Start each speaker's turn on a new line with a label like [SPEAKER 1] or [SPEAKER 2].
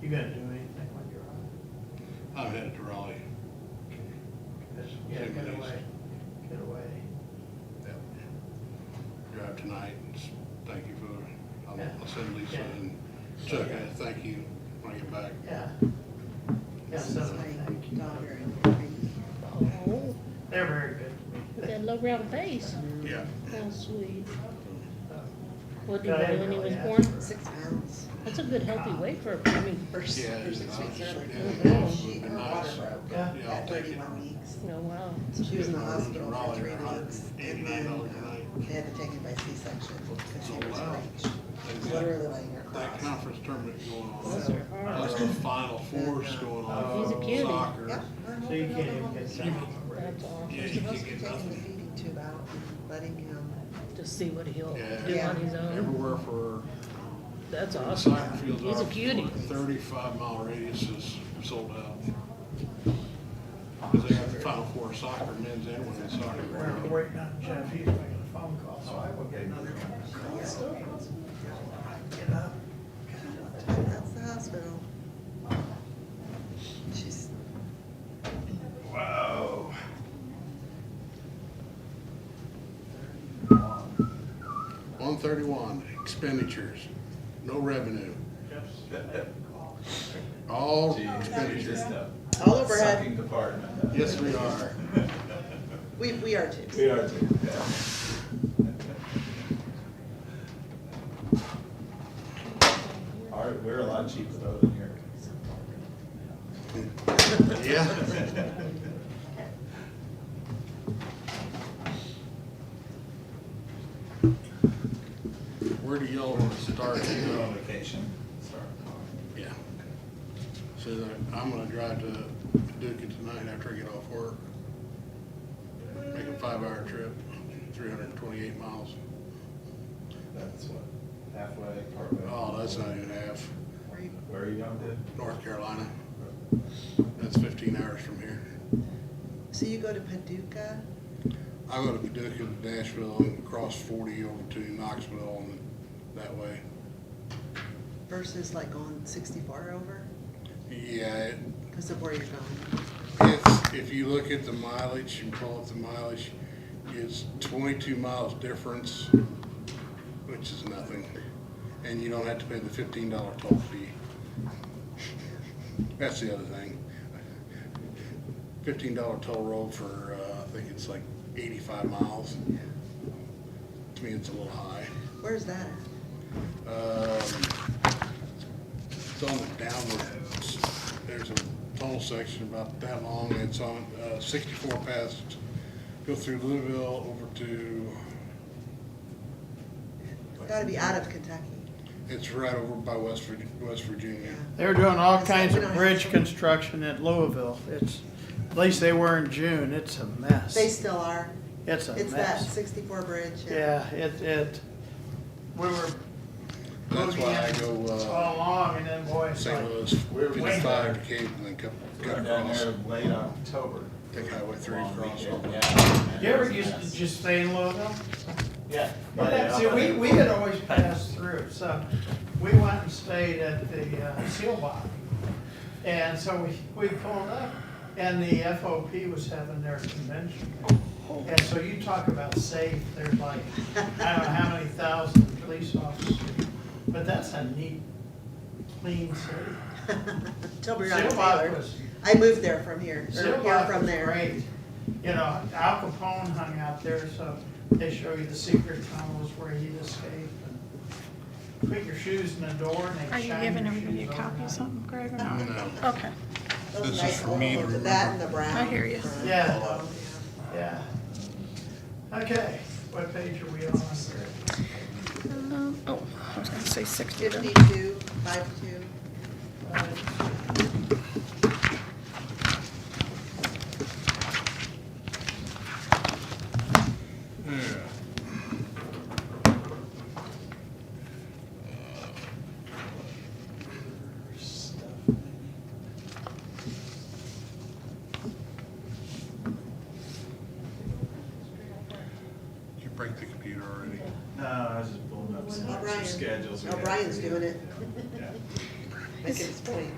[SPEAKER 1] gonna do anything when you're on?
[SPEAKER 2] I'm headed to Raleigh.
[SPEAKER 1] Just, yeah,
[SPEAKER 2] Take it
[SPEAKER 1] get
[SPEAKER 2] easy.
[SPEAKER 1] away, get away.
[SPEAKER 2] Yep. Drive tonight, and s- thank you for, I'll, I'll send Lisa
[SPEAKER 1] Yeah.
[SPEAKER 2] and Chuck, a thank you, bring it back.
[SPEAKER 1] Yeah. Yeah,
[SPEAKER 3] This is
[SPEAKER 1] so,
[SPEAKER 3] my
[SPEAKER 1] thank you.
[SPEAKER 3] daughter and
[SPEAKER 4] Oh,
[SPEAKER 1] They're very good to me.
[SPEAKER 4] that low round face.
[SPEAKER 2] Yeah.
[SPEAKER 4] Oh, sweet.
[SPEAKER 1] So,
[SPEAKER 4] What do you
[SPEAKER 1] No, I
[SPEAKER 4] weigh
[SPEAKER 1] didn't
[SPEAKER 4] when he was
[SPEAKER 1] really
[SPEAKER 4] born?
[SPEAKER 1] ask
[SPEAKER 3] six pounds.
[SPEAKER 4] That's a good healthy weight for a baby.
[SPEAKER 3] First,
[SPEAKER 2] Yeah,
[SPEAKER 3] her six
[SPEAKER 2] it's
[SPEAKER 3] weeks
[SPEAKER 2] nice.
[SPEAKER 3] early.
[SPEAKER 2] Yeah,
[SPEAKER 3] She,
[SPEAKER 2] it's
[SPEAKER 3] her water
[SPEAKER 2] nice.
[SPEAKER 3] broke
[SPEAKER 1] Yeah.
[SPEAKER 2] Yeah, I'll
[SPEAKER 3] at
[SPEAKER 2] take it.
[SPEAKER 3] thirty-one weeks.
[SPEAKER 4] No, wow.
[SPEAKER 3] So she was in the
[SPEAKER 2] Yeah, I'm
[SPEAKER 3] hospital for
[SPEAKER 2] Raleigh,
[SPEAKER 3] three
[SPEAKER 2] they're
[SPEAKER 3] weeks,
[SPEAKER 2] $189
[SPEAKER 3] and then um,
[SPEAKER 2] a night. Oh,
[SPEAKER 3] they had to take it by C-section because
[SPEAKER 2] So
[SPEAKER 3] she was
[SPEAKER 2] loud. They've
[SPEAKER 3] breech,
[SPEAKER 2] got
[SPEAKER 3] literally laying her
[SPEAKER 2] That
[SPEAKER 3] cross.
[SPEAKER 2] conference tournament going
[SPEAKER 3] Those
[SPEAKER 2] on,
[SPEAKER 3] are
[SPEAKER 2] that's the final fours going on.
[SPEAKER 1] He's a
[SPEAKER 2] for
[SPEAKER 4] Oh, cutie.
[SPEAKER 2] Soccer.
[SPEAKER 3] Yep.
[SPEAKER 1] So you can't even get some.
[SPEAKER 4] That's all.
[SPEAKER 2] Yeah,
[SPEAKER 3] We're
[SPEAKER 2] you
[SPEAKER 3] supposed
[SPEAKER 2] can't
[SPEAKER 3] to be
[SPEAKER 2] get
[SPEAKER 3] taking the
[SPEAKER 2] nothing.
[SPEAKER 3] feeding tube out and letting him,
[SPEAKER 4] Just see what he'll do
[SPEAKER 2] Yeah.
[SPEAKER 4] on his own.
[SPEAKER 2] Everywhere for
[SPEAKER 4] That's
[SPEAKER 2] the
[SPEAKER 4] awesome.
[SPEAKER 2] soccer fields
[SPEAKER 4] He's a
[SPEAKER 2] are
[SPEAKER 4] cutie.
[SPEAKER 2] Thirty-five mile radius is sold out. Cause they have the final four soccer, men's and women's
[SPEAKER 1] We're
[SPEAKER 2] soccer.
[SPEAKER 1] waiting on Jeff, he's making a phone call, so I will get another one. Get up.
[SPEAKER 3] that's the hospital. She's,
[SPEAKER 1] Whoa.
[SPEAKER 2] One thirty-one, expenditures, no revenue, all expenditures.
[SPEAKER 3] All overhead.
[SPEAKER 5] Sucking department.
[SPEAKER 2] Yes, we are.
[SPEAKER 3] we, we are too.
[SPEAKER 5] We are too, yeah. All right, we're a lot cheaper though than here.
[SPEAKER 2] Yeah, where do y'all wanna start?
[SPEAKER 5] You're on vacation. Sorry.
[SPEAKER 2] Yeah. So that- I'm gonna drive to Dukin tonight after I get off work. Make a five-hour trip, three hundred and twenty-eight miles.
[SPEAKER 5] That's what, halfway, partway.
[SPEAKER 2] Oh, that's not even half.
[SPEAKER 3] Where you-
[SPEAKER 5] Where are you going to?
[SPEAKER 2] North Carolina, that's fifteen hours from here.
[SPEAKER 3] So you go to Paducah,
[SPEAKER 2] I go to Paducah to Nashville and cross forty over to Knoxville and that way.
[SPEAKER 3] versus like on sixty-four over,
[SPEAKER 2] Yeah, it-
[SPEAKER 3] because of where you're going.
[SPEAKER 2] If, if you look at the mileage and pull up the mileage, it's twenty-two miles difference, which is nothing. And you don't have to pay the fifteen dollar toll fee. That's the other thing. Fifteen dollar toll road for, uh, I think it's like eighty-five miles. To me, it's a little high.
[SPEAKER 3] Where's that at?
[SPEAKER 2] Um, It's on the downwards, there's a tunnel section about that long, it's on uh, sixty-four past, go through Louisville over to,
[SPEAKER 3] It's gotta be out of Kentucky.
[SPEAKER 2] it's right over by West, Vir- West Virginia.
[SPEAKER 1] They're doing all
[SPEAKER 3] That's it,
[SPEAKER 1] kinds
[SPEAKER 3] we
[SPEAKER 1] of
[SPEAKER 3] don't
[SPEAKER 1] bridge
[SPEAKER 3] have to-
[SPEAKER 1] construction at Louisville. It's, at least they were in June. It's a mess.
[SPEAKER 3] They still are.
[SPEAKER 1] It's a
[SPEAKER 3] It's that
[SPEAKER 1] mess.
[SPEAKER 3] sixty-four bridge.
[SPEAKER 1] Yeah, it, it, we were
[SPEAKER 2] That's why I go,
[SPEAKER 1] all
[SPEAKER 2] uh,
[SPEAKER 1] along and then boy, it's
[SPEAKER 2] St.
[SPEAKER 1] like,
[SPEAKER 2] Louis,
[SPEAKER 5] Oh, We're way
[SPEAKER 2] fifty-five to
[SPEAKER 5] back.
[SPEAKER 2] Cape, and then cut, cut
[SPEAKER 5] We're down
[SPEAKER 2] across,
[SPEAKER 5] there late October.
[SPEAKER 2] take Highway three
[SPEAKER 5] Long
[SPEAKER 2] across.
[SPEAKER 5] weekend, yeah.
[SPEAKER 1] you ever used to just stay in Louisville?
[SPEAKER 5] Yeah.
[SPEAKER 1] Well, that's it. We, we had always passed through, so we went and stayed at the uh, Seal Box. And so we, we pulled up and the FOP was having their convention. And so you talk about safe, there's like, I don't know how many thousand police officers. But that's a neat, clean city.
[SPEAKER 3] Tilbury on
[SPEAKER 1] Seal Box
[SPEAKER 3] Taylor.
[SPEAKER 1] was,
[SPEAKER 3] I moved there from here, or
[SPEAKER 1] Seal
[SPEAKER 3] here
[SPEAKER 1] Box
[SPEAKER 3] from
[SPEAKER 1] was
[SPEAKER 3] there.
[SPEAKER 1] great. You know, Al Capone hung out there, so they show you the secret tunnels where he escaped. and Put your shoes in the door and
[SPEAKER 6] Are
[SPEAKER 1] they
[SPEAKER 6] you
[SPEAKER 1] shine
[SPEAKER 6] giving
[SPEAKER 1] your shoes
[SPEAKER 6] everybody a copy of
[SPEAKER 1] overnight.
[SPEAKER 6] something, Greg, or
[SPEAKER 2] I
[SPEAKER 6] not?
[SPEAKER 2] don't know.
[SPEAKER 6] Okay,
[SPEAKER 3] Those
[SPEAKER 2] This is
[SPEAKER 3] nice
[SPEAKER 2] for
[SPEAKER 3] old-
[SPEAKER 2] me to
[SPEAKER 3] That
[SPEAKER 2] remember.
[SPEAKER 3] and the brown.
[SPEAKER 6] I hear you.
[SPEAKER 3] front.
[SPEAKER 1] Yeah.
[SPEAKER 3] Oh,
[SPEAKER 1] Yeah. Okay, what page are we on?
[SPEAKER 6] Um, oh, I was gonna say sixty. then.
[SPEAKER 3] Fifty-two, five-two.
[SPEAKER 2] Yeah.
[SPEAKER 1] Stuff.
[SPEAKER 2] Did you break the computer already?
[SPEAKER 5] No, I was just pulling up some some
[SPEAKER 3] O'Brien.
[SPEAKER 5] schedules. we had
[SPEAKER 3] O'Brien's
[SPEAKER 5] for you.
[SPEAKER 3] doing it,
[SPEAKER 5] Yeah.
[SPEAKER 3] making his point.